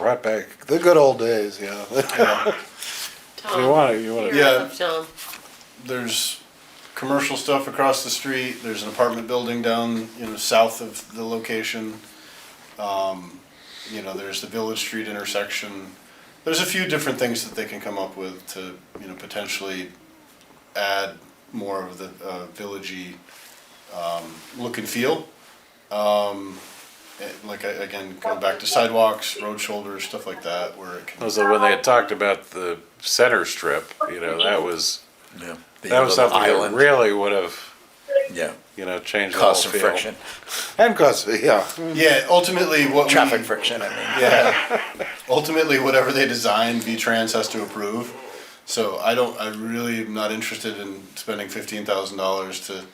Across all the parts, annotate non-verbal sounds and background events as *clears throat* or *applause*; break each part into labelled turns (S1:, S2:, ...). S1: Right back, the good old days, yeah.
S2: Tom,
S1: You want it, you want it.
S2: you're
S3: Yeah.
S2: up, Tom.
S3: there's commercial stuff across the street, there's an apartment building down, you know, south of the location. Um, you know, there's the Village Street intersection. There's a few different things that they can come up with to, you know, potentially add more of the, uh, villagey, um, look and feel. Um, eh, like, I- again, going back to sidewalks, road shoulders, stuff like that, where it can,
S4: Was that when they had talked about the center strip, you know, that was,
S5: Yeah.
S4: that was something that really would have,
S5: Yeah,
S4: you know, changed the whole
S5: cause some
S4: feel.
S5: friction,
S1: And custody, yeah.
S3: yeah, ultimately what we.
S5: traffic friction, I mean.
S3: Yeah. Ultimately, whatever they design, V-Trans has to approve. So I don't, I really am not interested in spending fifteen thousand dollars to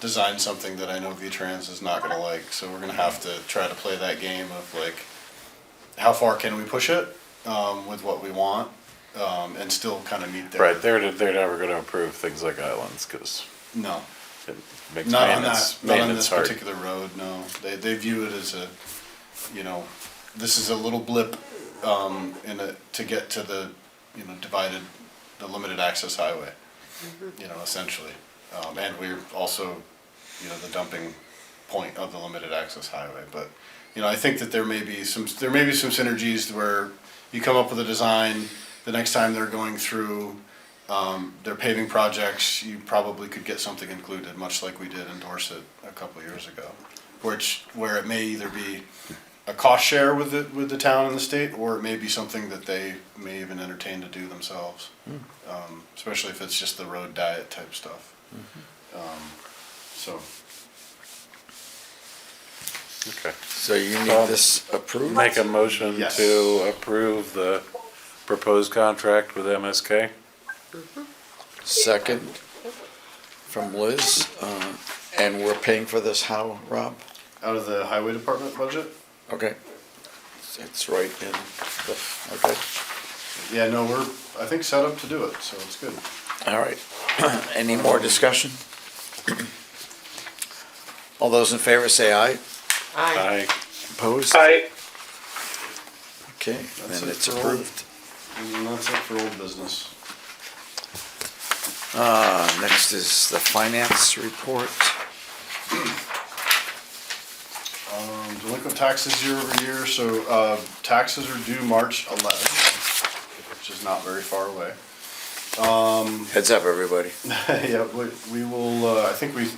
S3: design something that I know V-Trans is not gonna like. So we're gonna have to try to play that game of like, how far can we push it, um, with what we want, um, and still kind of meet their.
S4: Right, they're, they're never gonna approve things like islands, cause
S3: No,
S4: it makes
S3: not on that,
S4: maintenance,
S3: not on
S4: maintenance
S3: this
S4: hard.
S3: particular road, no. They, they view it as a, you know, this is a little blip, um, in a, to get to the, you know, divided, the limited access highway, you know, essentially. Um, and we're also, you know, the dumping point of the limited access highway, but, you know, I think that there may be some, there may be some synergies where you come up with a design, the next time they're going through, um, their paving projects, you probably could get something included, much like we did in Dorset a couple years ago. Which, where it may either be a cost share with the, with the town and the state, or it may be something that they may even entertain to do themselves. Um, especially if it's just the road diet type stuff. Um, So,
S4: Okay.
S5: So you need this approved?
S4: Make a motion
S3: Yes.
S4: to approve the proposed contract with MSK?
S5: Second from Liz, uh, and we're paying for this how, Rob?
S3: out of the highway department budget?
S5: Okay. It's right in the, okay,
S3: Yeah, no, we're, I think set up to do it, so it's good.
S5: all right. *clears throat* Any more discussion? *clears throat* All those in favor say aye.
S4: I,
S2: Aye.
S5: Opposed?
S6: Aye.
S5: Okay,
S3: That's
S5: then
S3: it
S5: it's
S3: for all.
S5: approved.
S3: And that's it for old business.
S5: Uh, next is the finance report.
S3: Um, delinquent taxes year over year, so, uh, taxes are due March eleventh, which is not very far away.
S5: Heads up, everybody.
S3: Yeah, we, we will, uh, I think we,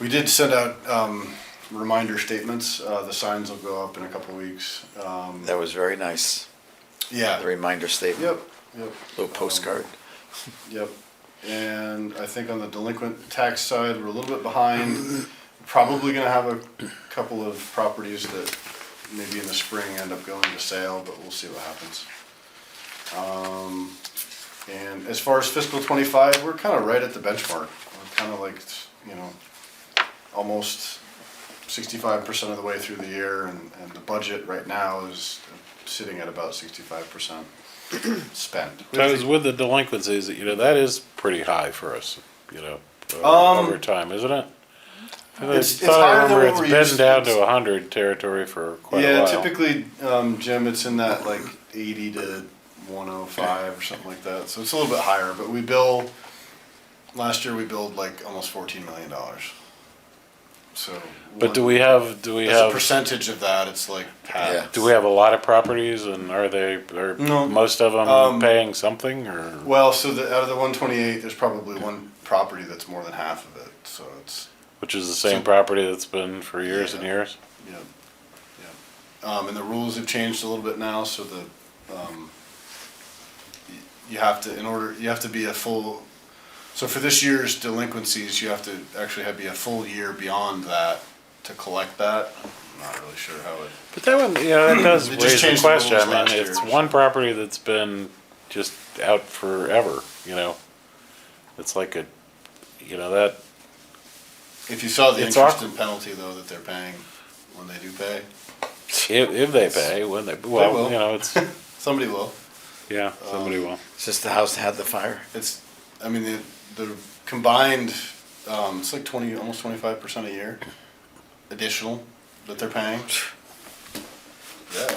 S3: we did send out, um, reminder statements, uh, the signs will go up in a couple of weeks, um,
S5: That was very nice, the
S3: yeah,
S5: reminder statement.
S3: yep, yep.
S5: Little postcard.
S3: Yep, and I think on the delinquent tax side, we're a little bit behind. Probably gonna have a couple of properties that maybe in the spring end up going to sale, but we'll see what happens. Um, and as far as fiscal twenty-five, we're kinda right at the benchmark. We're kinda like, you know, almost sixty-five percent of the way through the year and, and the budget right now is sitting at about sixty-five percent spent.
S4: because with the delinquencies, you know, that is pretty high for us, you know,
S3: Um,
S4: over over time, isn't it? I
S3: It's- it's
S4: thought I
S3: higher than
S4: remember
S3: what
S4: it's
S3: we're
S4: been
S3: used-
S4: down to a hundred territory for quite a
S3: yeah,
S4: while.
S3: typically, um, Jim, it's in that like eighty to one oh five or something like that. So it's a little bit higher, but we bill, last year we billed like almost fourteen million dollars. So.
S4: But do we have, do we
S3: As a
S4: have,
S3: percentage of that, it's like half.
S4: do we have a lot of properties and are they, are
S3: No.
S4: most of
S3: Um,
S4: them paying something or?
S3: Well, so the, out of the one twenty-eight, there's probably one property that's more than half of it, so it's,
S4: Which is the same property that's been for years and
S3: Yeah.
S4: years?
S3: you know, yeah. Um, and the rules have changed a little bit now, so the, um, y- you have to, in order, you have to be a full, so for this year's delinquencies, you have to actually have be a full year beyond that to collect that. I'm not really sure how *clears throat* it,
S4: But that one, you know, that does
S3: They just
S4: raise the
S3: changed the rules
S4: question. I
S3: last
S4: mean,
S3: year,
S4: it's
S3: so-
S4: one property that's been just out forever, you know? It's like a, you know, that,
S3: if you saw the
S4: It's
S3: interest
S4: awkward.
S3: and penalty though that they're paying when they do pay,
S4: if, if they pay, when they, well,
S3: will. Um,
S4: you know, it's,
S3: somebody will.
S4: yeah, somebody will.
S5: Since the house had the fire,
S3: It's, I mean, the, the combined, um, it's like twenty, almost twenty-five percent a year additional that they're paying. Yeah.